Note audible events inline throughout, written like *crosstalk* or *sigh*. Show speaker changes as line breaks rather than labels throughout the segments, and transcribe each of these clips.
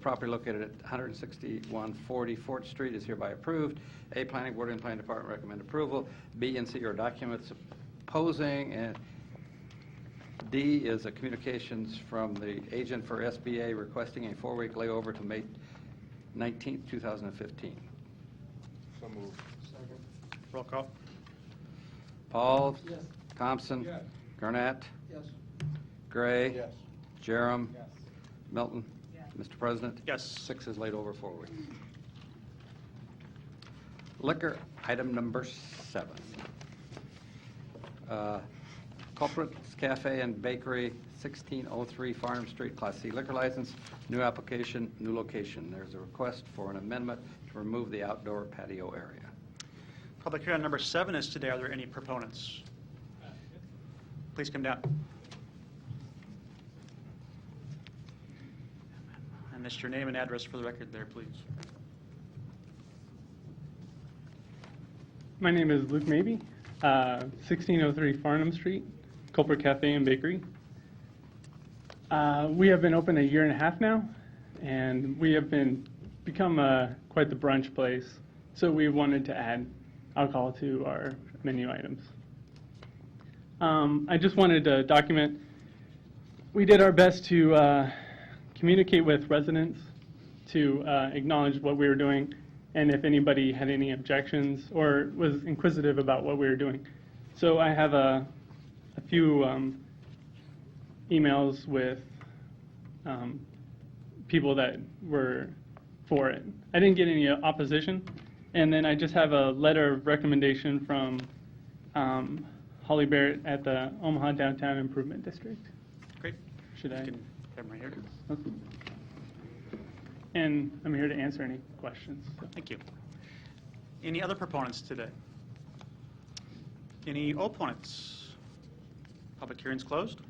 Property located at 16140 Fort Street is hereby approved. A, Planning Board and Planning Department recommend approval. B and C are documents opposing, and D is a communications from the agent for SBA requesting a four-week layover to May 19th, 2015.
So moved.
Roll call?
Pauls?
Yes.
Thompson?
Yes.
Gurnett?
Yes.
Gray?
Yes.
Jerem?
Yes.
Milton? Mr. President?
Yes.
Six is laid over forward. Liquor, item number seven. Uh, Culprits Cafe and Bakery, 1603 Farnham Street, Class C liquor license, new application, new location. There's a request for an amendment to remove the outdoor patio area.
Public hearing on number seven is today. Are there any proponents? Please come down. And just your name and address for the record there, please.
My name is Luke Mabey, uh, 1603 Farnham Street, Culper Cafe and Bakery. Uh, We have been open a year and a half now, and we have been, become uh, quite the brunch place, so we wanted to add alcohol to our menu items. Um, I just wanted to document, we did our best to uh, communicate with residents, to uh, acknowledge what we were doing, and if anybody had any objections or was inquisitive about what we were doing. So I have a, a few um, emails with um, people that were for it. I didn't get any opposition, and then I just have a letter of recommendation from um, Holly Barrett at the Omaha Downtown Improvement District.
Great.
Should
You
I-
can Come right here.
And I'm here to answer any questions. so.
Thank you. Any other proponents today? Any opponents? Public hearing's closed.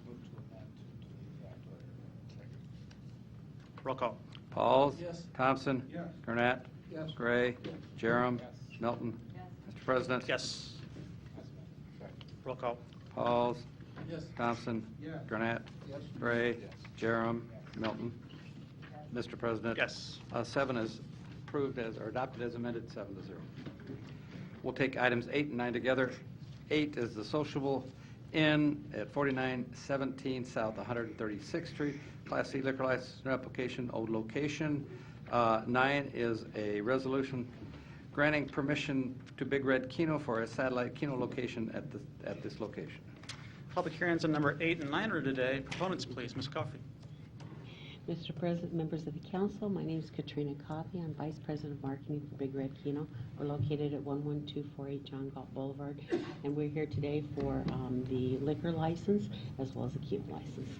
Roll call.
Pauls?
Yes.
Thompson?
Yes.
Gurnett?
Yes.
Gray? Jerem?
Yes.
Milton? Mr. President?
Yes. Roll call.
Pauls?
Yes.
Thompson?
Yes.
Gurnett?
Yes.
Gray?
Yes.
Jerem? Milton? Mr. President?
Yes.
Uh, Seven is approved as, or adopted as amended, seven to zero. We'll take items eight and nine together. Eight is the sociable inn at 4917 South 136th Street, Class C liquor license new application, old location. Uh, Nine is a resolution granting permission to Big Red Kino for a satellite Kino location at the, at this location.
Public hearings on number eight and nine are today. Proponents, please. Ms. Coffey.
Mr. President, members of the council, my name is Katrina Coffey. I'm Vice President of Marketing for Big Red Kino. We're located at 11248 John Galt Boulevard, and we're here today for um, the liquor license as well as the Kino license.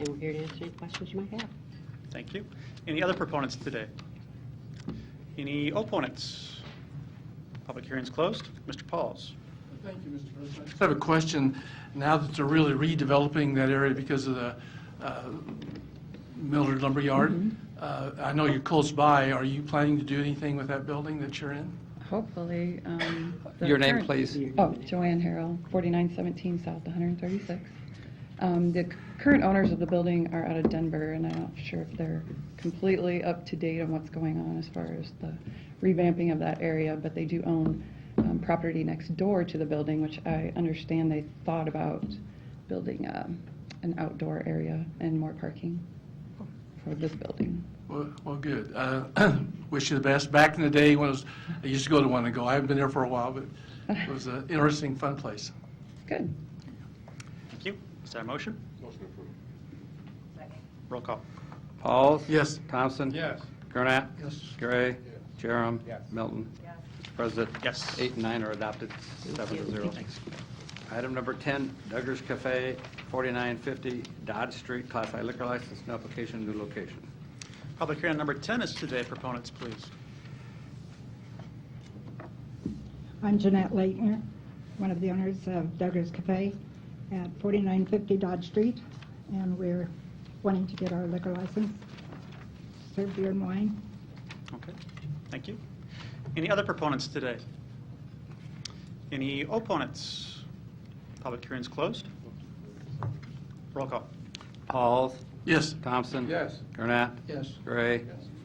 And we're here to answer any questions you might have.
Thank you. Any other proponents today? Any opponents? Public hearing's closed. Mr. Pauls.
Thank you, Mr. President.
I just have a question, now that they're really redeveloping that area because of the uh, Millard
Mm-hmm.
Lumberyard, uh, I know you're close by, are you planning to do anything with that building that you're in?
Hopefully. um, the
Your name,
current-
please.
Oh, Joanne Harrell, 4917 South 136. Um, The c- current owners of the building are out of Denver, and I'm not sure if they're completely up to date on what's going on as far as the revamping of that area, but they do own um, property next door to the building, which I understand they thought about building um, an outdoor area and more parking for this building.
Well, well, good. Uh, *clears throat* Wish you the best. Back in the day when it was, I used to go to one and go, I haven't been there for a while, but it was an interesting, fun place.
Good.
Thank you. Is there a motion?
Motion approved.
Roll call.
Pauls?
Yes.
Thompson?
Yes.
Gurnett?
Yes.
Gray?
Yes.
Jerem?
Yes.
Milton? Mr. President?
Yes.
Eight and nine are adopted, seven to zero. Item number 10, Duggar's Cafe, 4950 Dodge Street, Class I liquor license, new application, new location.
Public hearing on number 10 is today. Proponents, please.
I'm Jeanette Leitner, one of the owners of Duggars Cafe at 4950 Dodge Street, and we're wanting to get our liquor license, serve beer and wine.
Okay. Thank you. Any other proponents today? Any opponents? Public hearing's closed. Roll call.
Pauls?
Yes.
Thompson?
Yes.
Gurnett?
Yes.
Gray?
Yes.